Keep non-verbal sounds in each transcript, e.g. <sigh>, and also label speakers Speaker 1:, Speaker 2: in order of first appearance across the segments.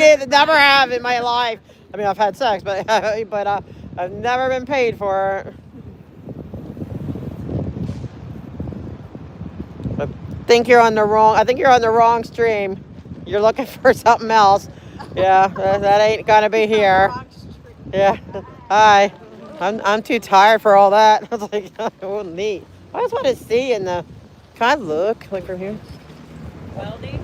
Speaker 1: It never have in my life. I mean, I've had sex, but <laughs> but uh, I've never been paid for it. I think you're on the wrong. I think you're on the wrong stream. You're looking for <laughs> something else. Yeah, <laughs> that that ain't gonna be here. Yeah. Hi. I'm I'm too tired for all that. <laughs> I was like, oh neat. I just want to see in the. Can I look like from here?
Speaker 2: Welding?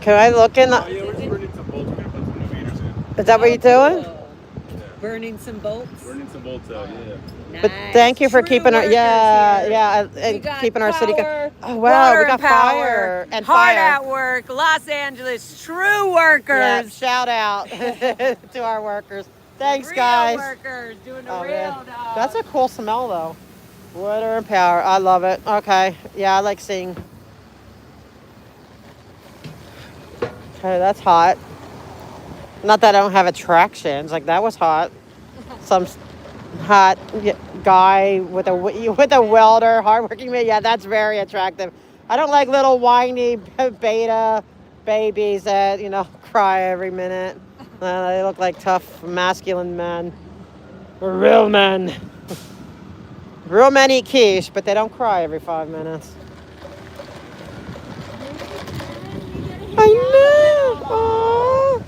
Speaker 1: Can I look in?
Speaker 3: Oh,
Speaker 1: The,
Speaker 3: yeah, we're just burning some bolts. We're gonna put some new meters in.
Speaker 1: is that what you're doing?
Speaker 3: Yeah.
Speaker 2: Oh. Burning some bolts?
Speaker 3: Burning some bolts out, yeah.
Speaker 2: Nice.
Speaker 1: But thank you for
Speaker 2: True
Speaker 1: keeping our
Speaker 2: workers
Speaker 1: yeah
Speaker 2: here.
Speaker 1: yeah
Speaker 2: We
Speaker 1: and
Speaker 2: got
Speaker 1: keeping our city. Go-
Speaker 2: power,
Speaker 1: oh wow,
Speaker 2: water
Speaker 1: we got
Speaker 2: and power,
Speaker 1: fire and
Speaker 2: hard
Speaker 1: fire.
Speaker 2: at work. Los Angeles true
Speaker 1: Yeah,
Speaker 2: workers.
Speaker 1: shout out <laughs> to our workers. Thanks,
Speaker 2: Real
Speaker 1: guys.
Speaker 2: Workers doing the
Speaker 1: Oh,
Speaker 2: real
Speaker 1: man.
Speaker 2: job.
Speaker 1: That's a cool smell though. Water and power. I love it. Okay. Yeah, I like seeing. Okay, that's hot. Not that I don't have attractions. Like that was hot. Some s- hot y- guy with a w- <laughs> with a welder, hardworking man. Yeah, that's very attractive. I don't like little whiny beta babies that you know <laughs> cry every minute. Uh, they look like tough masculine men. Real men. Real men eat quiche, but they don't cry every five minutes. I know. Aw.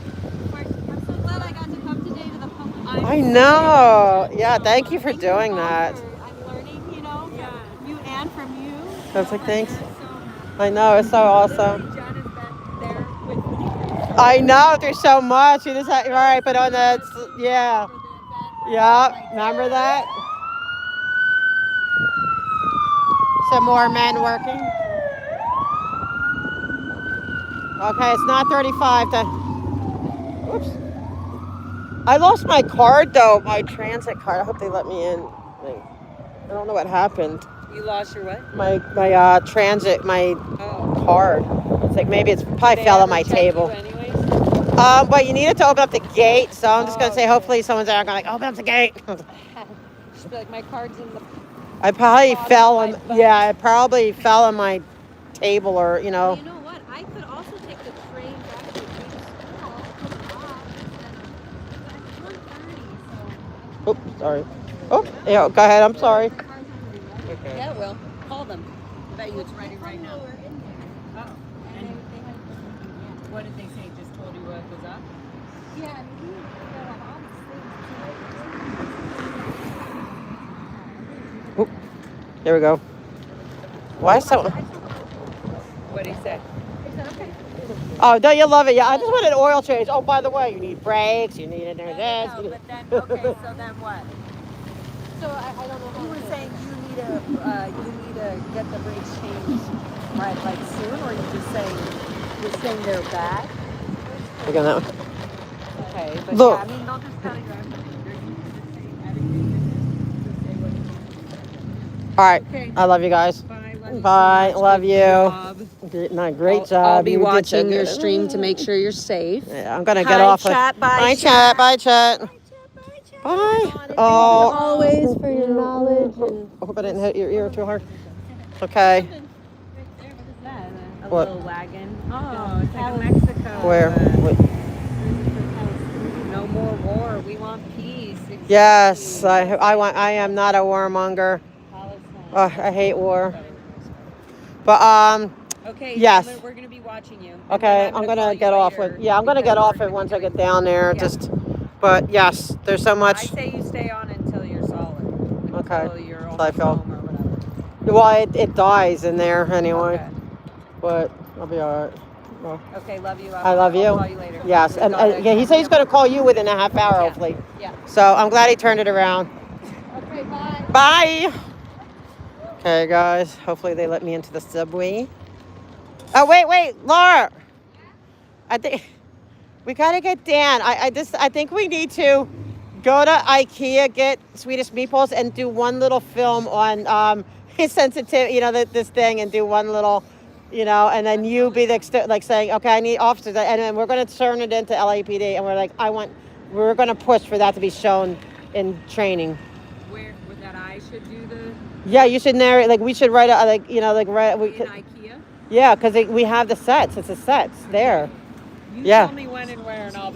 Speaker 4: I'm so glad I got to come today to the public.
Speaker 1: I know. Yeah, thank you for doing that.
Speaker 4: I'm learning, you know, from you and from you.
Speaker 1: I was like, thanks. Oh.
Speaker 4: You're so-
Speaker 1: I know. It's so awesome.
Speaker 4: John has been there with me for the
Speaker 1: I know. There's so much. You just have, all right, but on the, yeah.
Speaker 4: event.
Speaker 1: Yeah, remember that? Some more men working. Okay, it's not 35 to. Oops. I lost my card though, my transit card. I hope they let me in. Like, I don't know what happened.
Speaker 2: You lost your what?
Speaker 1: My my uh, transit, my
Speaker 2: Oh.
Speaker 1: card. It's like maybe it's probably
Speaker 2: They
Speaker 1: fell on
Speaker 2: ever
Speaker 1: my
Speaker 2: check you
Speaker 1: table.
Speaker 2: anyways?
Speaker 1: Um, but you needed to open up the gate, so I'm just gonna
Speaker 2: Oh,
Speaker 1: say
Speaker 2: okay.
Speaker 1: hopefully someone's there. I'm gonna like open up the gate. <laughs>
Speaker 2: Just be like, my card's in the.
Speaker 1: I probably
Speaker 2: Bottom
Speaker 1: fell
Speaker 2: right
Speaker 1: on.
Speaker 2: button.
Speaker 1: Yeah, I probably fell on my table or you know.
Speaker 4: You know what? I could also take the train back to the Greek school. come off, and then- but it's 1:30, so
Speaker 1: Oops, sorry. Oh, yeah. Go ahead. I'm sorry.
Speaker 4: the car's not gonna be ready.
Speaker 2: Yeah, it will. Call them. I bet you it's ready
Speaker 4: They
Speaker 2: right
Speaker 4: told me
Speaker 2: now.
Speaker 4: we were in
Speaker 2: Oh.
Speaker 4: there, and they- they had it broken, yeah.
Speaker 2: What did they say? Just told you what was up?
Speaker 4: Yeah, I mean, we were on all these things.
Speaker 1: Oop. There we go. Why so?
Speaker 2: What did he say?
Speaker 1: Oh, don't you love it? Yeah, I just want an oil change. Oh, by the way, you need brakes. You need a new this. you need-
Speaker 2: But then, okay, so then what?
Speaker 4: So I, I don't know. how
Speaker 2: You were
Speaker 4: to-
Speaker 2: saying you need a, uh, you need to get the brakes changed, right, like soon, or you just saying, you're saying they're bad?
Speaker 1: Look at that one.
Speaker 2: Okay, but
Speaker 1: Look.
Speaker 2: yeah, I mean, they'll just telegraph you. They're just saying everything, they're just saying what you
Speaker 1: All right.
Speaker 2: Okay.
Speaker 1: I love you guys.
Speaker 2: want. Bye.
Speaker 1: Bye, love you.
Speaker 2: you.
Speaker 1: Great, no, great
Speaker 2: I'll,
Speaker 1: job.
Speaker 2: I'll be
Speaker 1: You did so
Speaker 2: watching your
Speaker 1: good.
Speaker 2: stream to make sure you're
Speaker 1: <laughs>
Speaker 2: safe.
Speaker 1: Yeah, I'm gonna get
Speaker 2: Hi,
Speaker 1: off.
Speaker 2: chat. Bye,
Speaker 1: Bye, chat. Bye, chat. Bye. Oh.
Speaker 2: Always for your knowledge. And
Speaker 1: I hope I didn't hit your ear too hard. Okay.
Speaker 2: a
Speaker 1: What?
Speaker 2: little wagon. Oh, it's like Mexico. uh,
Speaker 1: Where? What?
Speaker 2: No more war. We want peace. It's
Speaker 1: Yes,
Speaker 2: peace.
Speaker 1: I, I want. I am not a warmonger.
Speaker 2: Palestine.
Speaker 1: Uh, I hate war. But um,
Speaker 2: Okay.
Speaker 1: Yes.
Speaker 2: We're, we're gonna be watching you. And
Speaker 1: okay,
Speaker 2: then
Speaker 1: I'm
Speaker 2: call
Speaker 1: gonna
Speaker 2: you
Speaker 1: get off
Speaker 2: later
Speaker 1: it. Yeah, I'm gonna
Speaker 2: because
Speaker 1: get off
Speaker 2: we're
Speaker 1: it once I
Speaker 2: gonna
Speaker 1: get down there.
Speaker 2: Yeah.
Speaker 1: Just, but yes, there's so
Speaker 2: I
Speaker 1: much.
Speaker 2: say you stay on until you're solid.
Speaker 1: Okay.
Speaker 2: Until you're
Speaker 1: Till
Speaker 2: almost
Speaker 1: I feel-
Speaker 2: home or whatever.
Speaker 1: Well, it, it dies in there anyway.
Speaker 2: Okay.
Speaker 1: But I'll be all right.
Speaker 2: Okay, love you.
Speaker 1: I love
Speaker 2: I'll
Speaker 1: you.
Speaker 2: Call you later.
Speaker 1: Yes,
Speaker 2: We
Speaker 1: and
Speaker 2: gotta
Speaker 1: uh, yeah, he said he's gonna call you within a half hour,
Speaker 2: Yeah.
Speaker 1: hopefully.
Speaker 2: Yeah.
Speaker 1: So I'm glad he turned it around.
Speaker 4: Okay, bye.
Speaker 1: Bye. Okay, guys. Hopefully they let me into the subway. Oh wait, wait, Laura. I think we gotta get Dan. I, I just I think we need to go to IKEA, get Swedish meatballs, and do one little film on um <laughs> his sensitive, you know, th- this thing, and do one little, you know, and then you be the ext- like saying, okay, I need officers, and then we're gonna turn it into LAPD, and we're like, I want, we're gonna push for that to be shown in training.
Speaker 2: Where with that I should do the
Speaker 1: Yeah, you should narrate. Like we should write a like you know like write. We
Speaker 2: in
Speaker 1: could,
Speaker 2: IKEA.
Speaker 1: yeah, because we have the sets. It's the sets there.
Speaker 2: You
Speaker 5: Yeah.
Speaker 2: tell me when and where, and I'll be.